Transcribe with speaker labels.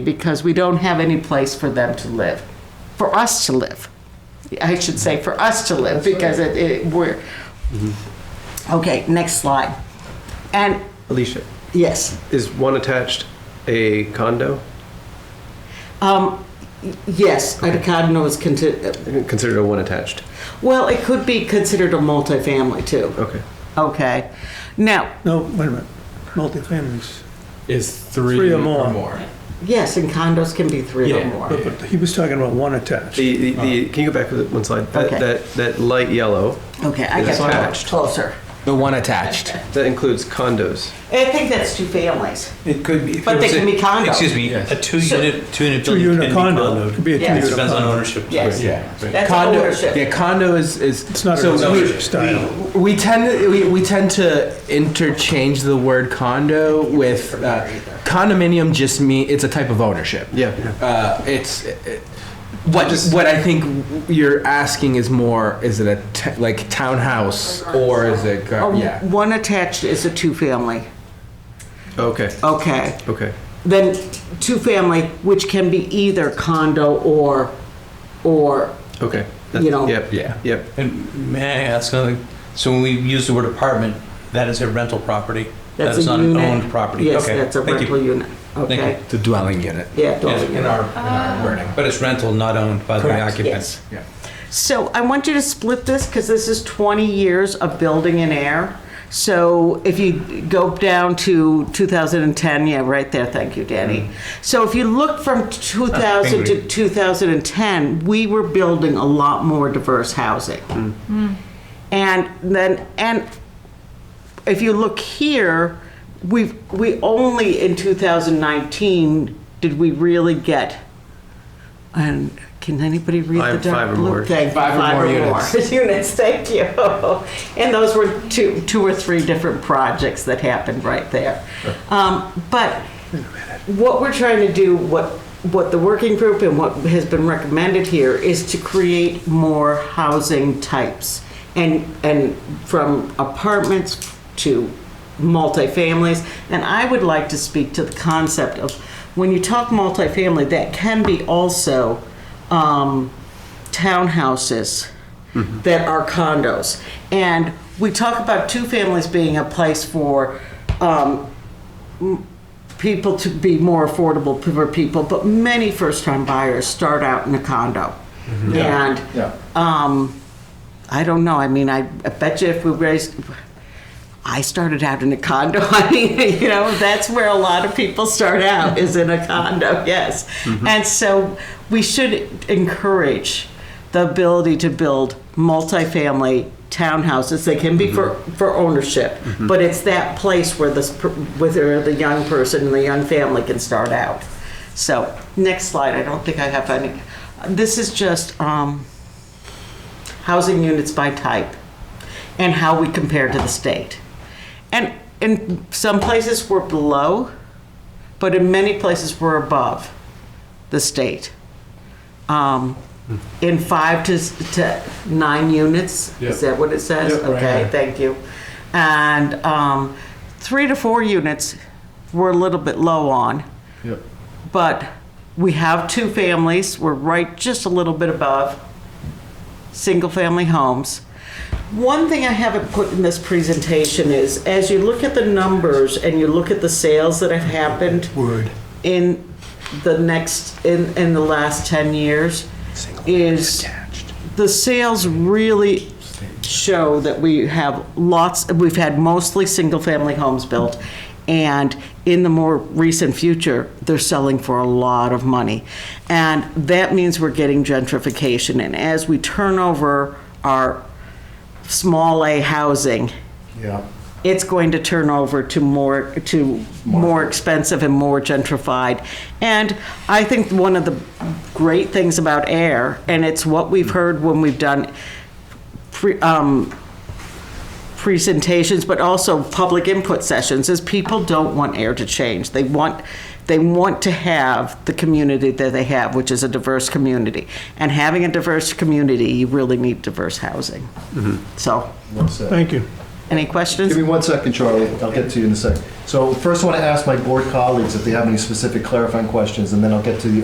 Speaker 1: because we don't have any place for them to live, for us to live. I should say for us to live because it, it we're okay. Next slide, and
Speaker 2: Alicia,
Speaker 1: yes,
Speaker 2: is one attached a condo?
Speaker 1: um, y- yes, a condo is considered.
Speaker 2: Considered a one attached.
Speaker 1: Well, it could be considered a multifamily too.
Speaker 2: Okay.
Speaker 1: Okay, now
Speaker 3: No, wait a minute. Multifamilies.
Speaker 4: is three,
Speaker 3: Three or
Speaker 4: or
Speaker 3: more.
Speaker 4: more.
Speaker 1: yes, and condos can be three or
Speaker 4: Yeah.
Speaker 1: more.
Speaker 3: But, but he was talking about one attached.
Speaker 2: The, the, the can you go back with one slide? That,
Speaker 1: Okay.
Speaker 2: that that light yellow
Speaker 1: Okay, I
Speaker 2: It's
Speaker 1: get
Speaker 2: attached.
Speaker 1: closer.
Speaker 4: The one attached.
Speaker 2: that includes condos.
Speaker 1: I think that's two families,
Speaker 5: It could be.
Speaker 1: but they can be condos.
Speaker 6: Excuse me, a two-unit, two-unit building. can
Speaker 3: Two-unit
Speaker 6: be
Speaker 3: condo, it could be a
Speaker 1: Yeah.
Speaker 6: It
Speaker 3: two-unit
Speaker 6: depends on
Speaker 3: condo.
Speaker 6: ownership.
Speaker 1: Yes.
Speaker 4: Yeah.
Speaker 1: That's
Speaker 4: condo.
Speaker 1: ownership.
Speaker 4: Yeah, condo is is.
Speaker 3: It's not a
Speaker 4: so we,
Speaker 3: residential style.
Speaker 4: we tend to, we, we tend to interchange the word condo with uh, condominium. Just me, it's a type of ownership.
Speaker 2: Yeah.
Speaker 4: Uh, it's it, what what I think you're asking is more is it a t- like townhouse or is it gar-
Speaker 1: Oh,
Speaker 4: yeah
Speaker 1: One attached is a two-family.
Speaker 2: Okay.
Speaker 1: Okay.
Speaker 2: Okay.
Speaker 1: Then two-family, which can be either condo or, or,
Speaker 2: Okay.
Speaker 1: You know.
Speaker 2: Yep.
Speaker 4: Yeah.
Speaker 2: Yep.
Speaker 6: And may I ask another, so when we use the word apartment, that is a rental property? That
Speaker 1: that's
Speaker 6: is
Speaker 1: a
Speaker 6: not an
Speaker 1: unit.
Speaker 6: owned property?
Speaker 1: Yes,
Speaker 6: Okay,
Speaker 1: that's a
Speaker 6: thank you.
Speaker 1: rental unit.
Speaker 6: you.
Speaker 1: Okay.
Speaker 4: the dwelling unit.
Speaker 1: Yeah. dwelling
Speaker 6: In
Speaker 1: unit.
Speaker 6: our, in our wording, but it's rental, not owned by the
Speaker 4: Correct,
Speaker 6: occupant.
Speaker 1: Yes.
Speaker 4: Yeah.
Speaker 1: So I want you to split this because this is 20 years of building in air. So if you go down to 2010, yeah, right there, thank you,
Speaker 2: Mm.
Speaker 1: Danny. So if you look from
Speaker 2: Ah,
Speaker 1: 2000 to
Speaker 6: Angry.
Speaker 1: 2010, we were building a lot more diverse housing.
Speaker 2: Mm.
Speaker 1: And then, and if you look here, we've, we only in 2019 did we really get, and can anybody read the
Speaker 2: Five- five
Speaker 1: dark
Speaker 2: or
Speaker 1: blue
Speaker 2: more.
Speaker 1: thing?
Speaker 4: Five or more units.
Speaker 1: Units, thank you. And those were two, two or three different projects that happened right there. Um, But what we're trying to do, what, what the working group and what has been recommended here is to create more housing types. And, and from apartments to multifamilies. And I would like to speak to the concept of, when you talk multifamily, that can be also um, townhouses that are condos. And we talk about two families being a place for um, people to be more affordable for people, but many first-time buyers start out in a condo. And, um, I don't know, I mean, I, I bet you if we raised, I started out in a condo, I mean, you know, that's where a lot of people start out, is in a condo, yes. And so we should encourage the ability to build multifamily townhouses. They can be for, for ownership, but it's that place where this, per- where the young person and the young family can start out. So, next slide, I don't think I have any, this is just, um, housing units by type, and how we compare to the state. And in some places, we're below, but in many places, we're above the state. Um,
Speaker 4: Hmm.
Speaker 1: In five to, s- to nine units, is that what it says?
Speaker 4: Yep, right,
Speaker 1: Okay,
Speaker 4: right.
Speaker 1: thank you. And um, three to four units, we're a little bit low on.
Speaker 4: Yep.
Speaker 1: But we have two families, we're right just a little bit above single-family homes. One thing I haven't put in this presentation is, as you look at the numbers and you look at the sales that have happened in the next, in, in the last 10 years, is the sales really show that we have lots, we've had mostly single-family homes built, and in the more recent future, they're selling for a lot of money. And that means we're getting gentrification, and as we turn over our small A housing,
Speaker 4: Yeah.
Speaker 1: it's going to turn over to more, to more expensive and more gentrified. And I think one of the great things about AIR, and it's what we've heard when we've done pre- um, presentations, but also public input sessions, is people don't want AIR to change. They want, they want to have the community that they have, which is a diverse community. And having a diverse community, you really need diverse housing. So,
Speaker 3: Thank you.
Speaker 1: Any questions?
Speaker 5: Give me one second, Charlie. I'll get to you in a sec. So first, I want to ask my board colleagues if they have any specific clarifying questions, and then I'll get to the